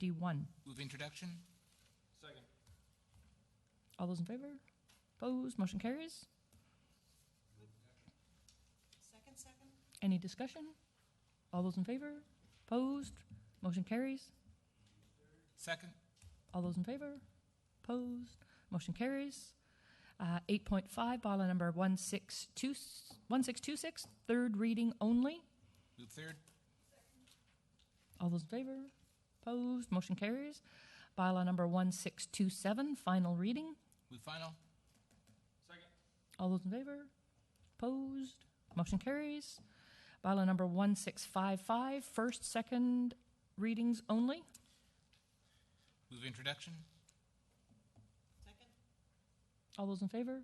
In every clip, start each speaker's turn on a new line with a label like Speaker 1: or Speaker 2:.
Speaker 1: 51.
Speaker 2: Move introduction?
Speaker 3: Second.
Speaker 1: All those in favor? Opposed? Motion carries.
Speaker 4: Second, second?
Speaker 1: Any discussion? All those in favor? Opposed? Motion carries.
Speaker 2: Second?
Speaker 1: All those in favor? Opposed? Motion carries. Uh, 8.5, bylaw number 162 1626, third reading only.
Speaker 2: Move third?
Speaker 1: All those in favor? Opposed? Motion carries. Bylaw number 1627, final reading.
Speaker 2: Move final?
Speaker 3: Second.
Speaker 1: All those in favor? Opposed? Motion carries. Bylaw number 1655, first, second readings only.
Speaker 2: Move introduction?
Speaker 4: Second?
Speaker 1: All those in favor?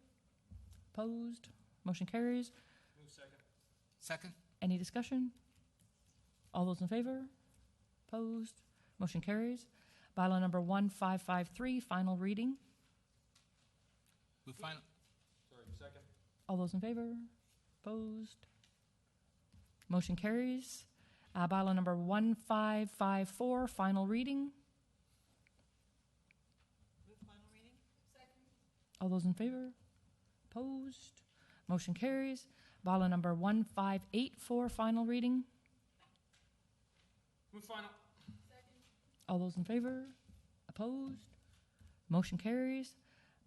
Speaker 1: Opposed? Motion carries.
Speaker 3: Move second.
Speaker 2: Second?
Speaker 1: Any discussion? All those in favor? Opposed? Motion carries. Bylaw number 1553, final reading.
Speaker 2: Move final?
Speaker 3: Sorry, second.
Speaker 1: All those in favor? Opposed? Motion carries. Uh, Bylaw number 1554, final reading.
Speaker 4: Move final reading?
Speaker 1: All those in favor? Opposed? Motion carries. Bylaw number 1584, final reading.
Speaker 3: Move final.
Speaker 1: All those in favor? Opposed? Motion carries.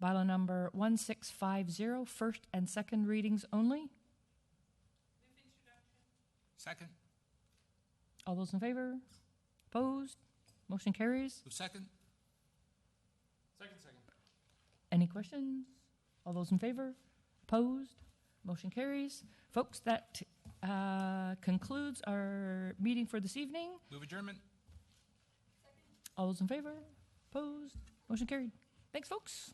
Speaker 1: Bylaw number 1650, first and second readings only.
Speaker 2: Second?
Speaker 1: All those in favor? Opposed? Motion carries.
Speaker 2: Move second?
Speaker 3: Second, second.
Speaker 1: Any questions? All those in favor? Opposed? Motion carries. Folks, that uh, concludes our meeting for this evening.
Speaker 2: Move adjournment?
Speaker 1: All those in favor? Opposed? Motion carried. Thanks, folks.